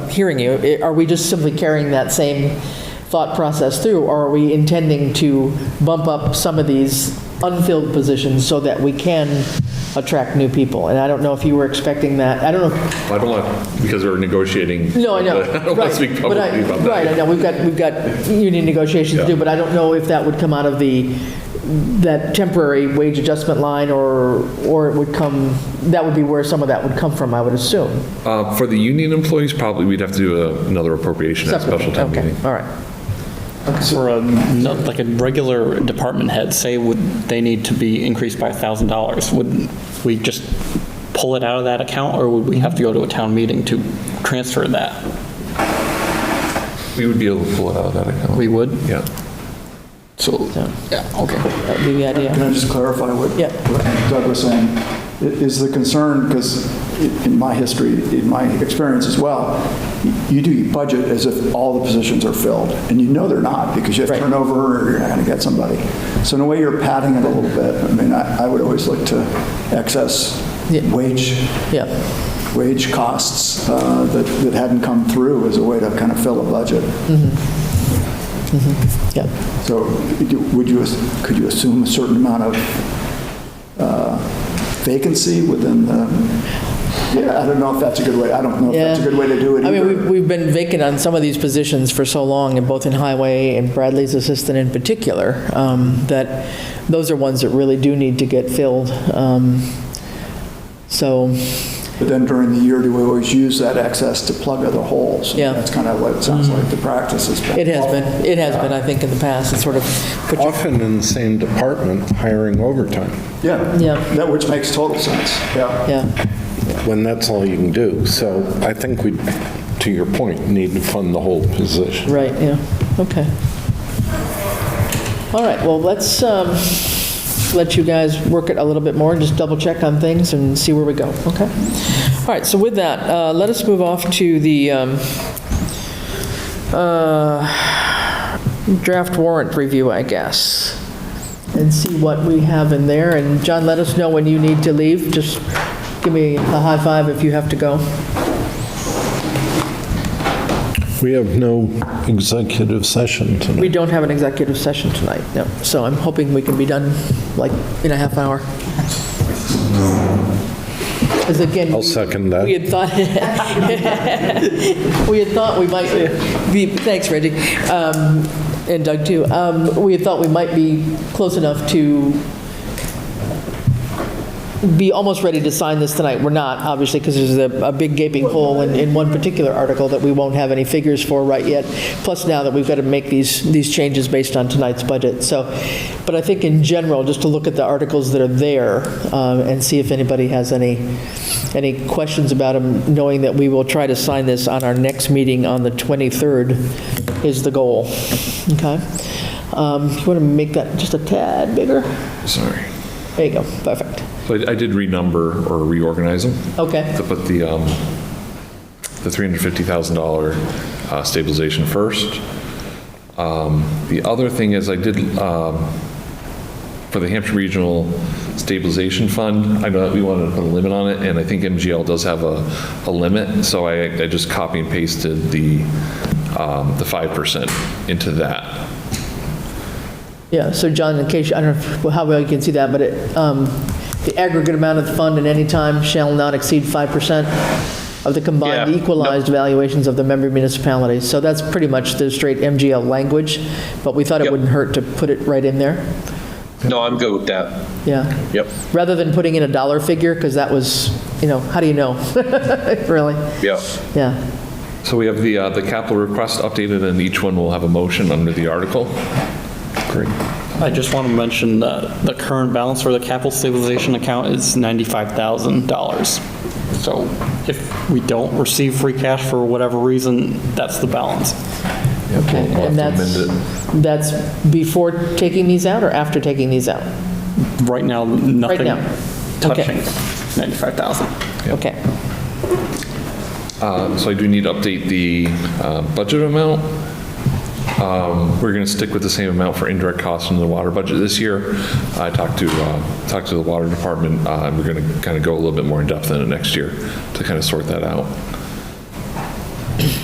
hearing you, i- are we just simply carrying that same thought process through? Or are we intending to bump up some of these unfilled positions so that we can attract new people? And I don't know if you were expecting that. I don't know, I don't want, because we're negotiating. no, I know. I don't want to speak Right, but I- publicly about that. Right, I know, we've got, we've got union negotiations to do, Yeah. but I don't know if that would come out of the, that temporary wage adjustment line, or, or it would come, that would be where some of that would come from, I would assume. Uh, For the union employees, probably we'd have to do a- another appropriation at a special town Okay, meeting. All right, For a, no- like a regular department head, say would, they need to be increased by $1,000, would we just pull it out of that account, or would we have to go to a town meeting to transfer that? We would be able to pull it out of that account. We would? Yeah. So, yeah, okay. that would be the Can idea. I just clarify what Yeah. what Doug was saying? I- Is the concern, because in my history, in my experience as well, y- you do your budget as if all the positions are filled, and you know they're not, because you have Right. turnover, or you're not going to get somebody. So in a way, you're padding it a little bit. I mean, I I would always look to excess Yeah. wage, Yeah. wage costs uh, that that hadn't come through as a way to kind of fill a budget. Yep. So would you, could you assume a certain amount of uh, vacancy within the, yeah, I don't know if that's a good way, I don't know if that's a Yeah. good way to do it I mean, we've, either. we've been vacant on some of these positions for so long, and both in highway and Bradley's assistant in particular, um, that those are ones that really do need to get filled. Um, So, But then during the year, do we always use that excess to plug other holes? Yeah. Mm-hmm. That's kind of what it sounds like the practice has been. it has been, it has been, I think, in the past, it's sort of, put your- Often in the same department hiring overtime, Yeah. Yeah. That, which makes total sense, yeah. yeah, when that's all you can do. So I think we, to your point, need to fund the whole position. right, yeah, okay. All right, well, let's um, let you guys work it a little bit more, just double check on things and see where we go, okay? All right, so with that, uh, let us move off to the um, uh, draft warrant review, I guess, and see what we have in there. And John, let us know when you need to leave, just give me a high five if you have to go. We have no executive session tonight. We don't have an executive session tonight, no. So I'm hoping we can be done like in a half hour. Because again. I'll second that. We had thought, we had thought we might be, thanks Reggie, um, and Doug too. Um, We had thought we might be close enough to be almost ready to sign this tonight. We're not, obviously, because there's a, a big gaping hole in, in one particular article that we won't have any figures for right yet. Plus now that we've got to make these, these changes based on tonight's budget. So, but I think in general, just to look at the articles that are there um, and see if anybody has any, any questions about them, knowing that we will try to sign this on our next meeting on the 23rd is the goal. Okay? Um, You want to make that just a tad bigger? Sorry. There you go, perfect. So I I did renumber or reorganize them Okay. to put the, um, the $350,000 uh, stabilization first. Um, The other thing is I did, um, for the Hampshire Regional Stabilization Fund, I know that we wanted to put a limit on it, and I think MGL does have a, a limit, so I, I just copy and pasted the, um, the 5% into that. Yeah, so John, in case, I don't know if- well, how well you can see that, but it, um, the aggregate amount of the fund at any time shall not exceed 5% of the combined Yeah, equalized valuations of the member municipalities. So that's pretty much the straight MGL language, but we thought it Yep. wouldn't hurt to put it right in there. No, I'm good with that. Yeah. Yep, Rather than putting in a dollar figure, because that was, you know, how do you know? Really? yep. Yeah. So we have the, uh, the capital request updated, and each one will have a motion under the article. Great. I just want to mention that the current balance for the capital stabilization account is $95,000. So if we don't receive free cash for whatever reason, that's the balance. Okay. we'll And have to that's, amend that's before taking these out or after taking these out? Right now, Right nothing now. Okay. touching 95,000. Okay. Uh, So I do need to update the uh, budget amount. Um, We're going to stick with the same amount for indirect costs in the water budget this year. I talked to, uh, talked to the water department, uh, and we're going to kind of go a little bit more in depth in it next year to kind of sort that out.